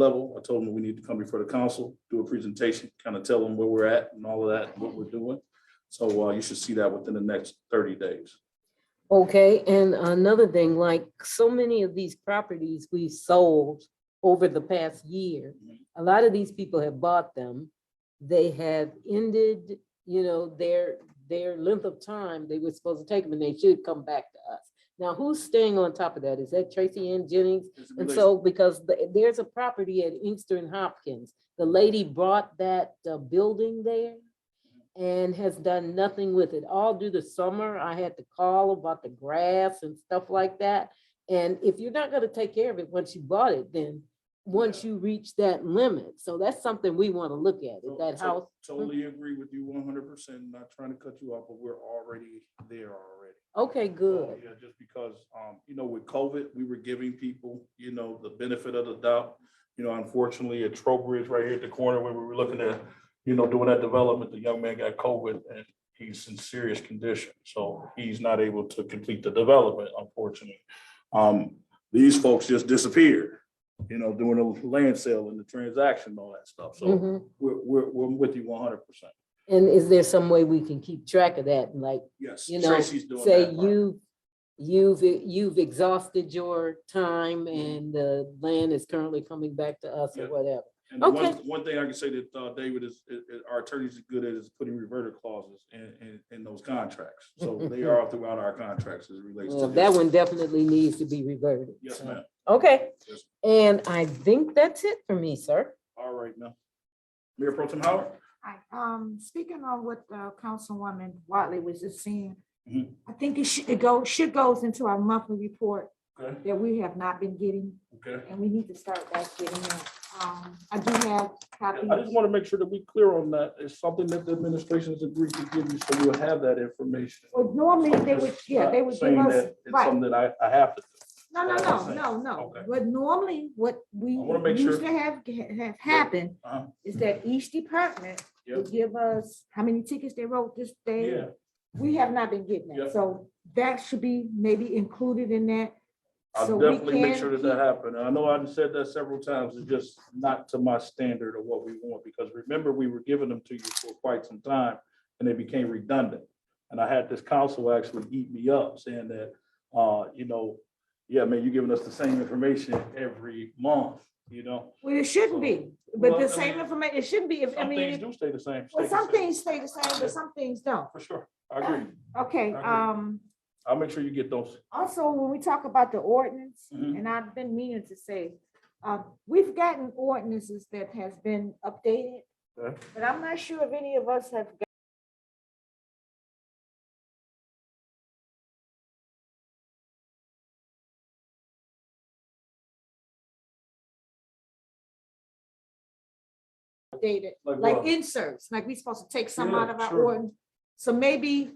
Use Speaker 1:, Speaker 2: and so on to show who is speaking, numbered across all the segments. Speaker 1: level. I told them we need to come before the council, do a presentation, kind of tell them where we're at and all of that, what we're doing. So uh, you should see that within the next thirty days.
Speaker 2: Okay, and another thing, like so many of these properties we've sold over the past year, a lot of these people have bought them. They have ended, you know, their, their length of time they were supposed to take them and they should come back to us. Now, who's staying on top of that? Is that Tracy Ann Jennings? And so, because the- there's a property at Inkster and Hopkins, the lady bought that uh, building there and has done nothing with it. All through the summer, I had to call about the grass and stuff like that. And if you're not gonna take care of it once you bought it, then once you reach that limit, so that's something we wanna look at,
Speaker 1: So-
Speaker 2: is that
Speaker 1: Oh, so-
Speaker 2: house.
Speaker 1: Totally agree with you one hundred percent, not trying to cut you off, but we're already there already.
Speaker 2: Okay,
Speaker 1: So,
Speaker 2: good.
Speaker 1: Yeah, just because, um, you know, with COVID, we were giving people, you know, the benefit of the doubt. You know, unfortunately, at Trowbridge, right here at the corner, where we were looking at, you know, doing that development, the young man got COVID and he's in serious condition. So he's not able to complete the development, unfortunately. Um, these folks just disappeared, you know, doing the land sale and the transaction, and all that stuff. So
Speaker 2: Mhm.
Speaker 1: we're, we're, we're with you one hundred percent.
Speaker 2: And is there some way we can keep track of that, and like,
Speaker 1: Yes.
Speaker 2: You know,
Speaker 1: Tracy's doing
Speaker 2: say
Speaker 1: that part.
Speaker 2: you, you've, you've exhausted your time and the land is currently coming back to us
Speaker 1: Mm-hmm. Yeah.
Speaker 2: or whatever.
Speaker 1: And the one,
Speaker 2: Okay.
Speaker 1: one thing I can say that, uh, David is, is- is- our attorneys are good at is putting reverter clauses in, in, in those contracts. So they are throughout our contracts as it relates to
Speaker 2: Well, that
Speaker 1: this.
Speaker 2: one definitely needs to be reverted.
Speaker 1: Yes,
Speaker 2: so.
Speaker 1: ma'am.
Speaker 2: Okay,
Speaker 1: Yes.
Speaker 2: and I think that's it for me, sir.
Speaker 1: All right, now. Mayor Pro Tem Howard?
Speaker 3: Hi, um, speaking on what uh, Councilwoman Watley was just saying,
Speaker 1: Mhm.
Speaker 3: I think it should, it go, should goes into our monthly report
Speaker 1: Okay,
Speaker 3: that we have not been getting,
Speaker 1: okay.
Speaker 3: and we need to start back getting it. Um, I do have
Speaker 1: I just
Speaker 3: copies.
Speaker 1: want to make sure that we clear on that. It's something that the administration has agreed to give you, so you'll have that information.
Speaker 3: Well, normally they would, yeah, they would give
Speaker 1: uh, Saying
Speaker 3: us,
Speaker 1: that It's
Speaker 3: right,
Speaker 1: something that I, I have to.
Speaker 3: no, no,
Speaker 1: that's what I'm
Speaker 3: no,
Speaker 1: saying.
Speaker 3: no, no.
Speaker 1: Okay.
Speaker 3: But normally what we
Speaker 1: I wanna make
Speaker 3: used
Speaker 1: sure-
Speaker 3: to have, have happened
Speaker 1: Uh-huh.
Speaker 3: is that each department would give us how many tickets they wrote this day,
Speaker 1: Yeah,
Speaker 3: We have not been getting
Speaker 1: Yep.
Speaker 3: that, so that should be maybe included in that. so
Speaker 1: I'll
Speaker 3: we
Speaker 1: definitely make
Speaker 3: can
Speaker 1: sure that that happens. I know I've said that several times, it's just not to my standard of what we want, because remember, we were giving them to you for quite some time, and they became redundant. And I had this council actually eat me up, saying that, uh, you know, yeah, man, you're giving us the same information every month, you know?
Speaker 3: Well, it shouldn't be, but
Speaker 1: Well, I
Speaker 3: the same
Speaker 1: mean,
Speaker 3: information, it shouldn't be, if, I
Speaker 1: Some things
Speaker 3: mean,
Speaker 1: do stay the same. stay
Speaker 3: well,
Speaker 1: the
Speaker 3: some
Speaker 1: same,
Speaker 3: things stay the same,
Speaker 1: Yeah.
Speaker 3: but some things don't.
Speaker 1: For sure, I agree.
Speaker 3: Okay,
Speaker 1: I agree.
Speaker 3: um,
Speaker 1: I'll make sure you get those.
Speaker 3: also, when we talk about the ordinance,
Speaker 1: Mhm.
Speaker 3: and I've been meaning to say, uh, we've gotten ordinances that has been updated,
Speaker 1: Okay.
Speaker 3: but I'm not sure if any of us have updated, like
Speaker 1: what?
Speaker 3: inserts, like we supposed to take some
Speaker 1: Yeah,
Speaker 3: out of our
Speaker 1: sure.
Speaker 3: ordinance. So maybe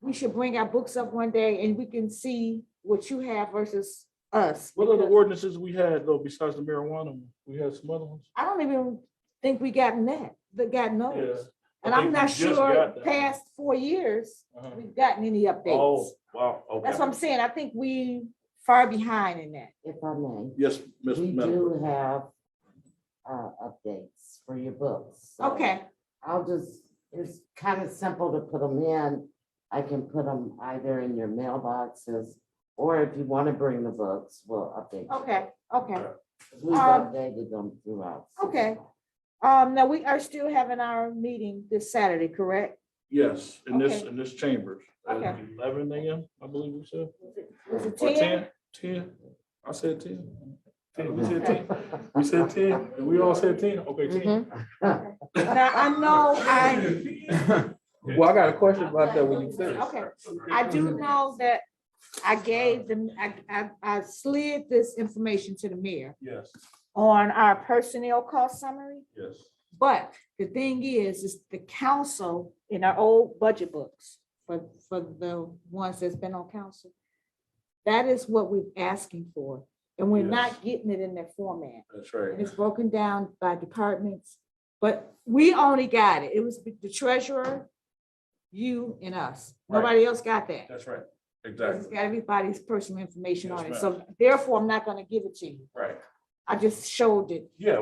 Speaker 3: we should bring our books up one day and we can see what you have versus us.
Speaker 1: What other
Speaker 3: because
Speaker 1: ordinances we had, though, besides the marijuana? one? We had some other ones?
Speaker 3: I don't even think we gotten that, that got those.
Speaker 1: I
Speaker 3: And I'm
Speaker 1: think we
Speaker 3: not
Speaker 1: just got
Speaker 3: sure,
Speaker 1: that.
Speaker 3: past four years,
Speaker 1: Uh-huh.
Speaker 3: we've gotten any updates.
Speaker 1: Oh, wow, okay.
Speaker 3: That's what I'm saying. I think we far behind in that.
Speaker 4: if I may,
Speaker 1: Yes, Ms.
Speaker 4: we
Speaker 1: Miller.
Speaker 4: do have uh, updates for your books.
Speaker 1: Oh.
Speaker 4: so
Speaker 3: Okay,
Speaker 4: I'll just, it's kind of simple to put them in. I can put them either in your mailboxes, or if you want to bring the books, we'll update. you.
Speaker 3: okay, okay.
Speaker 4: We've
Speaker 3: Um,
Speaker 4: updated them throughout.
Speaker 3: Okay. Um, now we are still having our meeting this Saturday, correct?
Speaker 1: Yes, in this,
Speaker 3: Okay.
Speaker 1: in this chamber.
Speaker 3: Okay.
Speaker 1: Eleven AM, I believe we said.
Speaker 3: Was it
Speaker 1: Or
Speaker 3: ten?
Speaker 1: Ten, I said ten. Ten, we said ten, we said ten, and we all said ten, okay, ten.
Speaker 3: Mm-hmm. Now, I know I,
Speaker 5: Well, I got a question about that when you finish.
Speaker 3: okay. I do know that I gave them, I, I, I slid this information to the mayor
Speaker 1: Yes,
Speaker 3: on our personnel cost summary.
Speaker 1: yes.
Speaker 3: But the thing is, is the council in our old budget books, for, for the ones that's been on council. That is what we're asking for, and we're not getting it in that format.
Speaker 1: That's
Speaker 3: And
Speaker 1: right.
Speaker 3: it's broken down by departments, but we only got it. It was the treasurer, you and us.
Speaker 1: Right.
Speaker 3: Nobody else got that.
Speaker 1: That's right.
Speaker 3: Because It's
Speaker 1: Exactly,
Speaker 3: got everybody's personal information on
Speaker 1: Yes,
Speaker 3: it, so therefore I'm not gonna give it to you.
Speaker 1: right.
Speaker 3: I just showed it
Speaker 1: Yeah,